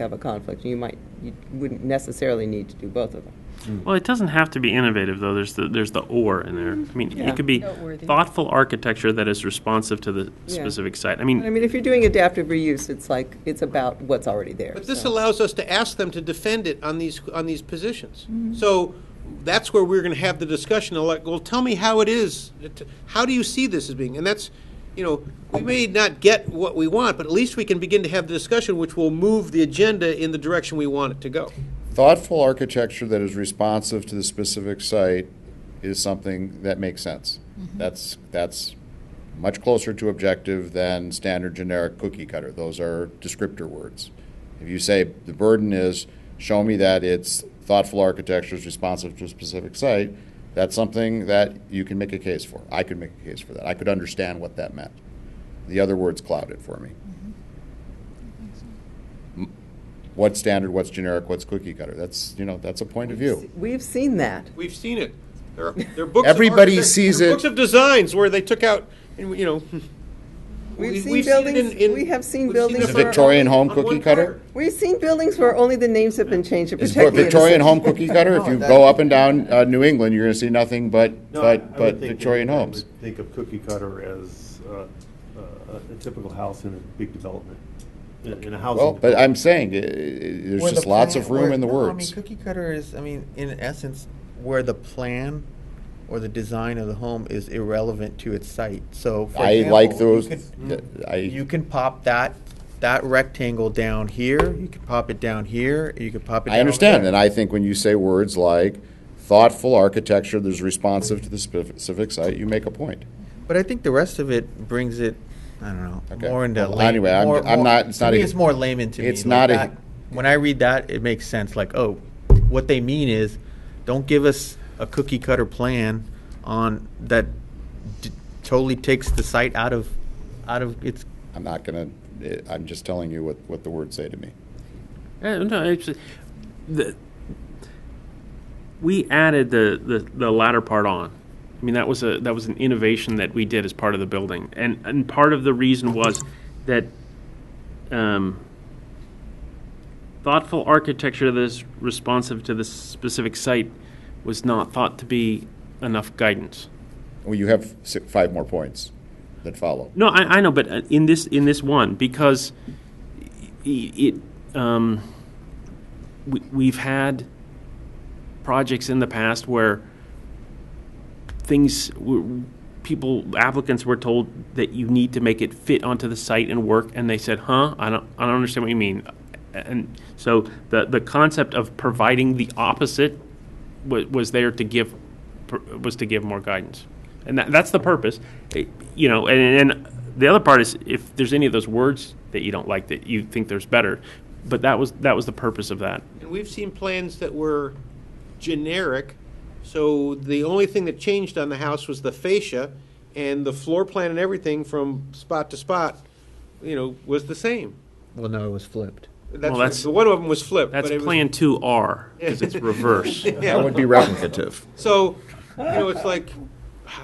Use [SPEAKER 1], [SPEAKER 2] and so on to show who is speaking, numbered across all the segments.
[SPEAKER 1] have a conflict, you might, you wouldn't necessarily need to do both of them.
[SPEAKER 2] Well, it doesn't have to be innovative though. There's the there's the or in there. I mean,
[SPEAKER 1] Mm-hmm. Yeah.
[SPEAKER 2] it could be
[SPEAKER 3] Noteworthy.
[SPEAKER 2] thoughtful architecture that is responsive to the
[SPEAKER 1] Yeah.
[SPEAKER 2] specific site. I
[SPEAKER 1] I
[SPEAKER 2] mean,
[SPEAKER 1] mean, if you're doing adaptive reuse, it's like, it's about what's already there.
[SPEAKER 4] But this
[SPEAKER 1] so.
[SPEAKER 4] allows us to ask them to defend it on these, on these positions.
[SPEAKER 1] Mm-hmm.
[SPEAKER 4] So that's where we're going to have the discussion, of like, well, tell me how it is, t- how do you see this as being? And that's, you know, we may not get what we want, but at least we can begin to have the discussion, which will move the agenda in the direction we want it to go.
[SPEAKER 5] Thoughtful architecture that is responsive to the specific site is something that makes sense. That's, that's much closer to objective than standard generic cookie cutter. Those are descriptor words. If you say the burden is, show me that it's thoughtful architecture is responsive to a specific site, that's something that you can make a case for. I could make a case for that. I could understand what that meant. The other words cloud it for me. M- What's standard, what's generic, what's cookie cutter? That's, you know, that's a point of view.
[SPEAKER 1] We've seen that.
[SPEAKER 4] We've seen it. There are, there are books. of
[SPEAKER 5] Everybody
[SPEAKER 4] architect-
[SPEAKER 5] sees
[SPEAKER 4] there are
[SPEAKER 5] it.
[SPEAKER 4] Books of designs where they took out, and, you know. we-
[SPEAKER 1] We've seen
[SPEAKER 4] we've seen it
[SPEAKER 1] buildings,
[SPEAKER 4] in- in-
[SPEAKER 1] we have seen
[SPEAKER 4] we've seen it
[SPEAKER 1] buildings
[SPEAKER 4] for-
[SPEAKER 1] where.
[SPEAKER 5] Victorian home
[SPEAKER 4] on one
[SPEAKER 5] cookie cutter?
[SPEAKER 4] corner.
[SPEAKER 1] We've seen buildings where only the names have been changed to
[SPEAKER 5] Is
[SPEAKER 1] protect the
[SPEAKER 5] Victorian
[SPEAKER 1] innocent.
[SPEAKER 5] home cookie cutter? If you go up and down uh, New England, you're going to see nothing but,
[SPEAKER 6] No, I- I
[SPEAKER 5] but,
[SPEAKER 6] would
[SPEAKER 5] but
[SPEAKER 6] think
[SPEAKER 5] Victorian
[SPEAKER 6] that- I
[SPEAKER 5] homes.
[SPEAKER 6] would Think of cookie cutter as uh, uh, a typical house in a big development, in in a housing.
[SPEAKER 5] Well, but
[SPEAKER 6] development.
[SPEAKER 5] I'm saying, i- i- there's
[SPEAKER 7] Where
[SPEAKER 5] just
[SPEAKER 7] the
[SPEAKER 5] lots
[SPEAKER 7] plan-
[SPEAKER 5] of room
[SPEAKER 7] where-
[SPEAKER 5] in the
[SPEAKER 7] no, I mean,
[SPEAKER 5] words.
[SPEAKER 7] cookie cutter is, I mean, in essence, where the plan or the design of the home is irrelevant to its site. So, for
[SPEAKER 5] I like
[SPEAKER 7] example, you
[SPEAKER 5] those,
[SPEAKER 7] could-
[SPEAKER 5] th-
[SPEAKER 6] Mm.
[SPEAKER 7] You
[SPEAKER 5] I,
[SPEAKER 7] can pop that, that rectangle down here, you can pop it down here, you can pop it down
[SPEAKER 5] I understand,
[SPEAKER 7] there.
[SPEAKER 5] and I think when you say words like thoughtful architecture that's responsive to the specific site, you make a point.
[SPEAKER 7] But I think the rest of it brings it, I don't know,
[SPEAKER 5] Okay.
[SPEAKER 7] more into
[SPEAKER 5] Well,
[SPEAKER 7] lay-
[SPEAKER 5] anyway, I'm-
[SPEAKER 7] more-
[SPEAKER 5] I'm
[SPEAKER 7] more-
[SPEAKER 5] not- it's
[SPEAKER 7] to
[SPEAKER 5] not
[SPEAKER 7] me,
[SPEAKER 5] a-
[SPEAKER 7] it's more layman to me.
[SPEAKER 5] it's
[SPEAKER 7] like
[SPEAKER 5] not a-
[SPEAKER 7] that- When I read that, it makes sense. Like, oh, what they mean is, don't give us a cookie cutter plan on that d- totally takes the site out of out of its.
[SPEAKER 5] I'm not going to, I'm just telling you what, what the words say to me.
[SPEAKER 2] uh, no, it's, the, we added the, the the latter part on. I mean, that was a that was an innovation that we did as part of the building, and and part of the reason was that um, thoughtful architecture that is responsive to the specific site was not thought to be enough guidance.
[SPEAKER 5] Well, you have si five more points that follow.
[SPEAKER 2] No, I, I know, but uh, in this in this one because i- it um, we, we've had projects in the past where things were, people applicants were told that you need to make it fit onto the site and work, and they said, "Huh, I don't I don't understand what you mean." And so the the concept of providing the opposite was, was there to give pr- was to give more guidance, and that, that's the purpose, Eh, you know. And, and the other part is if there's any of those words that you don't like that you think there's better, but that was that was the purpose of that.
[SPEAKER 4] And we've seen plans that were generic, so the only thing that changed on the house was the fascia, and the floor plan and everything from spot to spot, you know, was the same.
[SPEAKER 7] Well, no, it was flipped.
[SPEAKER 4] That's,
[SPEAKER 2] Well, that's-
[SPEAKER 4] the one of them was flipped.
[SPEAKER 2] That's
[SPEAKER 4] but it was-
[SPEAKER 2] plan two R because it's reverse.
[SPEAKER 5] That would be replicative.
[SPEAKER 4] So, you know, it's like,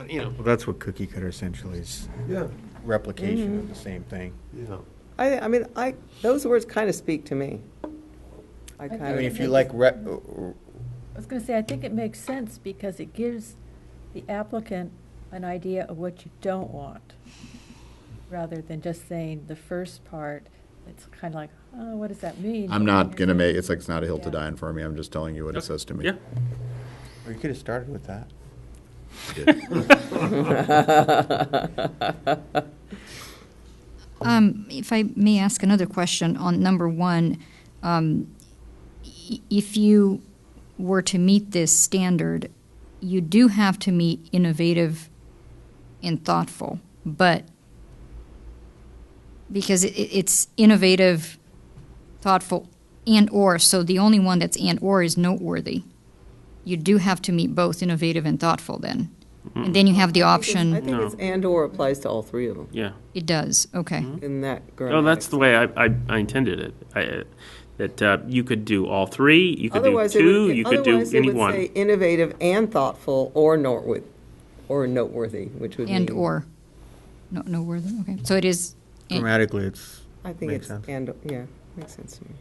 [SPEAKER 4] you know,
[SPEAKER 7] Well, that's what cookie cutter essentially is.
[SPEAKER 6] Yeah,
[SPEAKER 7] Replication of the same thing.
[SPEAKER 6] yeah.
[SPEAKER 1] I, I mean, I, those words kind of speak to me. I
[SPEAKER 7] I
[SPEAKER 1] kind
[SPEAKER 7] mean,
[SPEAKER 1] of,
[SPEAKER 7] if you like re-
[SPEAKER 3] I was going to say, I think it makes sense because it gives the applicant an idea of what you don't want, rather than just saying the first part. It's kind of like, oh, what does that mean?
[SPEAKER 5] I'm not going to make, it's like, it's not a hill to die on for me. I'm just telling you what it says to me.
[SPEAKER 2] Yeah.
[SPEAKER 7] Or you could have started with that.
[SPEAKER 8] Um, If I may ask another question on number one, um, i- if you were to meet this standard, you do have to meet innovative and thoughtful, but because it, it's innovative, thoughtful, and or, so the only one that's and or is noteworthy. You do have to meet both innovative and thoughtful then. And then you have the
[SPEAKER 1] I
[SPEAKER 8] option,
[SPEAKER 1] think it's and/or applies to all three of them
[SPEAKER 2] Yeah.
[SPEAKER 8] it does, okay.
[SPEAKER 1] in that
[SPEAKER 2] Oh,
[SPEAKER 1] grammatic.
[SPEAKER 2] that's the way I, I, I intended it. I, uh, that uh, you could do all three, you could
[SPEAKER 1] Otherwise,
[SPEAKER 2] do
[SPEAKER 1] it
[SPEAKER 2] two,
[SPEAKER 1] would,
[SPEAKER 2] you could do
[SPEAKER 1] otherwise
[SPEAKER 2] any
[SPEAKER 1] it would
[SPEAKER 2] one.
[SPEAKER 1] say innovative and thoughtful or noteworthy, or noteworthy, which would
[SPEAKER 8] And
[SPEAKER 1] mean-
[SPEAKER 8] or, no, no word, okay, so it is,
[SPEAKER 7] Grammatically, it's
[SPEAKER 1] I think
[SPEAKER 7] Makes
[SPEAKER 1] it's
[SPEAKER 7] sense.
[SPEAKER 1] and yeah, makes sense to me.